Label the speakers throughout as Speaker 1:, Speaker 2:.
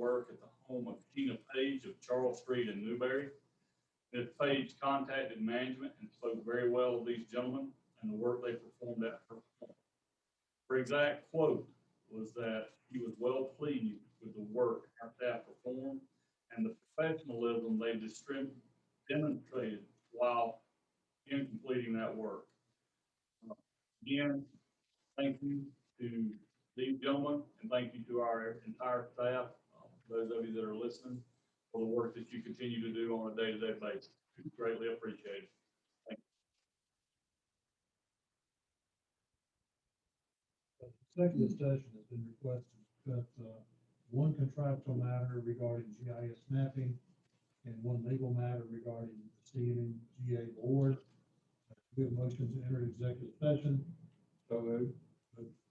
Speaker 1: work at the home of Gina Page of Charles Street in Newberry. Ms. Page contacted management and spoke very well of these gentlemen and the work they performed at her home. Her exact quote was that she was well pleased with the work our staff performed and the professionalism they distrib- demonstrated while in completing that work. Uh, Again, thank you to these gentlemen, and thank you to our entire staff, uh, those of you that are listening, for the work that you continue to do on a day-to-day basis. It's Greatly appreciated.
Speaker 2: Second discussion has been requested, but uh, one contractual matter regarding GIS mapping and one legal matter regarding the CNGA board. We have motion to enter executive session. So moved.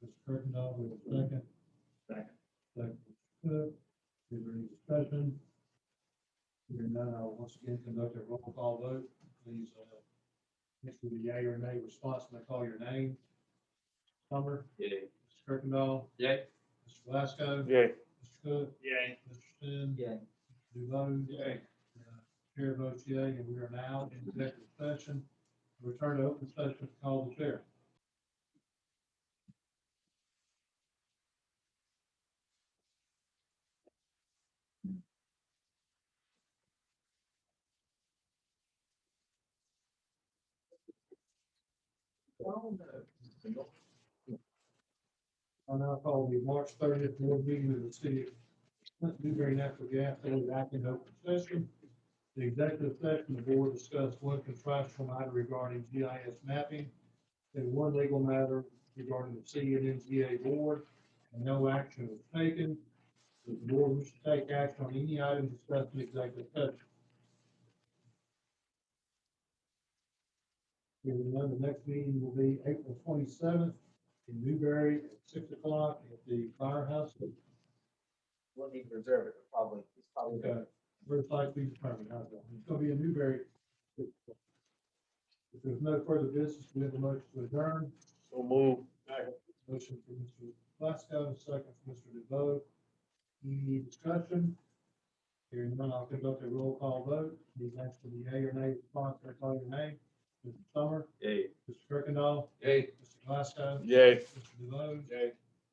Speaker 2: Mr. Kirkendall, we have a second.
Speaker 1: Second.
Speaker 2: Second, Mr. Cook. Is there any discussion? Hearing none, I'll once again conduct a roll call vote. Please, uh, mix with the yea or nay response when I call your name. Summer.
Speaker 3: Yay.
Speaker 2: Mr. Kirkendall.
Speaker 3: Yay.
Speaker 2: Mr. Glasgow.
Speaker 1: Yay.
Speaker 2: Mr. Cook.
Speaker 1: Yay.
Speaker 2: Mr. Sin.
Speaker 3: Yay.
Speaker 2: Dulo.
Speaker 1: Yay.
Speaker 2: Uh, Chair votes yea, and we are now in executive session. Return to open session, call the chair. I now call the March thirtieth board meeting of the city of Newberry Natural Gas, and we act in open session. The executive session, the board discussed one contractual matter regarding GIS mapping and one legal matter regarding the C and NGA board, and no action was taken. The board wishes to take action on any item discussed in executive session. Hearing none, the next meeting will be April twenty-seventh in Newberry at six o'clock at the firehouse.
Speaker 3: We'll need to reserve it, but probably, it's probably.
Speaker 2: Okay, First likely determined, how's that? It's gonna be in Newberry. If there's no further business, we have a motion to adjourn.
Speaker 1: So move.
Speaker 2: Motion for Mr. Glasgow, second for Mr. DeVoe. Any discussion? Hearing none, I'll conduct a roll call vote. These ask for the yea or nay response, I call your name. Mr. Summer,
Speaker 3: Yay.
Speaker 2: Mr. Kirkendall,
Speaker 3: Yay.
Speaker 2: Mr. Glasgow,
Speaker 1: Yay.
Speaker 2: Mr. DeVoe,
Speaker 1: Yay.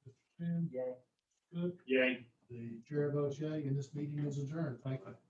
Speaker 2: Mr. Finn,
Speaker 3: Yay.
Speaker 2: Cook.
Speaker 1: Yay.
Speaker 2: The chair votes yea, and this meeting is adjourned. Thank you.